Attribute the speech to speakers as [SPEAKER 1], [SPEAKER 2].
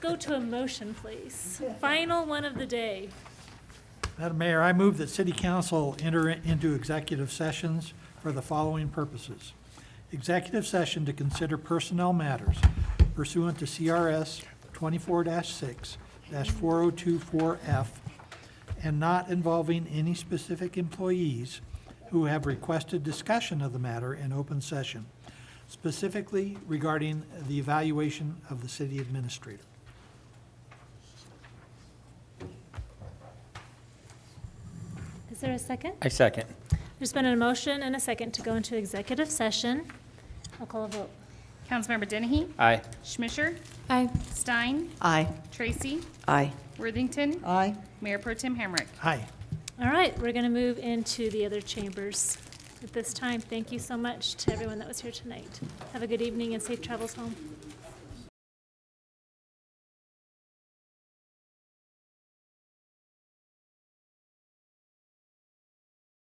[SPEAKER 1] Go to a motion, please. Final one of the day.
[SPEAKER 2] Madam Mayor, I move that city council enter into executive sessions for the following purposes. Executive session to consider personnel matters pursuant to CRS twenty-four six four oh two four F and not involving any specific employees who have requested discussion of the matter in open session, specifically regarding the evaluation of the city administrator.
[SPEAKER 1] Is there a second?
[SPEAKER 3] I second.
[SPEAKER 1] There's been a motion and a second to go into executive session. I'll call a vote.
[SPEAKER 4] Councilmember Dennehy?
[SPEAKER 3] Aye.
[SPEAKER 4] Schmisher?
[SPEAKER 5] Aye.
[SPEAKER 4] Stein?
[SPEAKER 5] Aye.
[SPEAKER 4] Tracy?
[SPEAKER 5] Aye.
[SPEAKER 4] Worthington?
[SPEAKER 5] Aye.
[SPEAKER 4] Mayor Pro Tem Hamrick?
[SPEAKER 2] Aye.
[SPEAKER 1] All right, we're going to move into the other chambers at this time. Thank you so much to everyone that was here tonight. Have a good evening and safe travels home.